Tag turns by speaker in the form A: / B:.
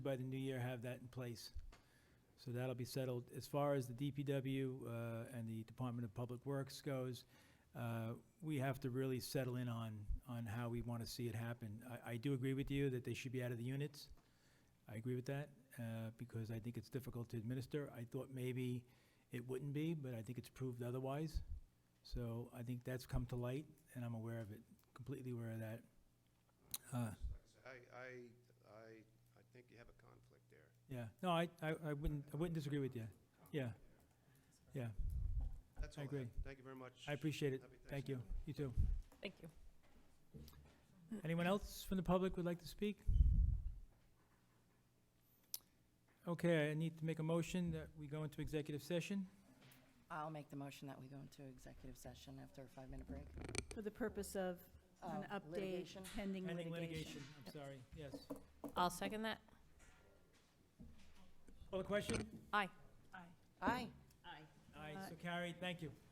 A: by the new year, have that in place. So that'll be settled. As far as the DPW uh, and the Department of Public Works goes, uh, we have to really settle in on, on how we want to see it happen. I, I do agree with you that they should be out of the units. I agree with that, uh, because I think it's difficult to administer. I thought maybe it wouldn't be, but I think it's proved otherwise. So I think that's come to light, and I'm aware of it, completely aware of that. Uh,
B: I, I, I, I think you have a conflict there.
A: Yeah, no, I, I I wouldn't, I wouldn't disagree with you. Yeah, yeah,
B: That's
A: I
B: all I have.
A: agree.
B: Thank you very much.
A: I appreciate it.
B: Happy
A: Thank you.
B: Thanksgiving.
A: You too.
C: Thank you.
A: Anyone else from the public would like to speak? Okay, I need to make a motion that we go into executive session.
D: I'll make the motion that we go into executive session after a five-minute break.
E: For the purpose of an
D: Uh,
E: update
D: litigation.
E: pending
A: Pending
E: litigation.
A: I'm sorry, yes.
C: I'll second that.
A: Call the question?
C: Aye.
D: Aye.
A: Aye,
E: Aye. Uh,
A: so carried, thank you.